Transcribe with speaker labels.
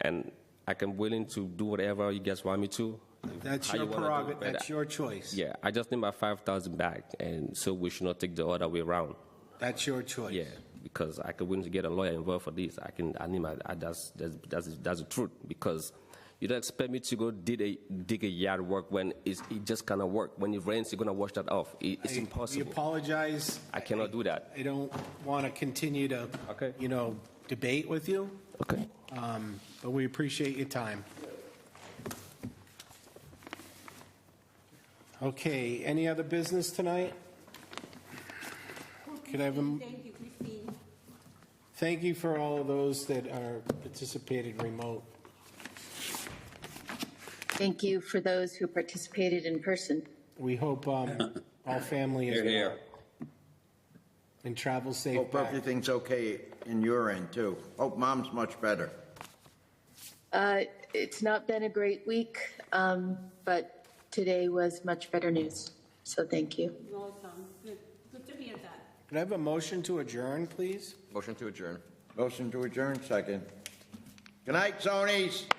Speaker 1: and I can willing to do whatever you guys want me to.
Speaker 2: That's
Speaker 1: how
Speaker 2: your
Speaker 1: you wanna do it,
Speaker 2: prerogative,
Speaker 1: but
Speaker 2: that's
Speaker 1: I-
Speaker 2: your choice.
Speaker 1: Yeah, I just need my five thousand back, and so we should not take the other way around.
Speaker 2: That's your choice.
Speaker 1: Yeah, because I could willing to get a lawyer involved for this. I can, I need my, I, that's, that's, that's, that's the truth. Because you don't expect me to go dig a, dig a yard work when it's, it just cannot work. When it rains, you're gonna wash that off. It, it's
Speaker 2: I- We
Speaker 1: impossible.
Speaker 2: apologize.
Speaker 1: I cannot do that.
Speaker 2: I don't want to continue to,
Speaker 1: Okay.
Speaker 2: you know, debate with you,
Speaker 1: Okay.
Speaker 2: um, but we appreciate your time. Okay, any other business tonight? Could I have a m-
Speaker 3: Thank you, Christine.
Speaker 2: Thank you for all of those that are participated remote.
Speaker 4: Thank you for those who participated in person.
Speaker 2: We hope um, all family is
Speaker 5: Here, here.
Speaker 2: well and travel safe
Speaker 5: Hope
Speaker 2: back.
Speaker 5: everything's okay in your end, too. Hope mom's much better.
Speaker 4: Uh, It's not been a great week, um, but today was much better news, so thank you.
Speaker 3: You're welcome. Good, good to hear that.
Speaker 2: Could I have a motion to adjourn, please?
Speaker 6: Motion to adjourn.
Speaker 5: Motion to adjourn, second. Good night, Zonies.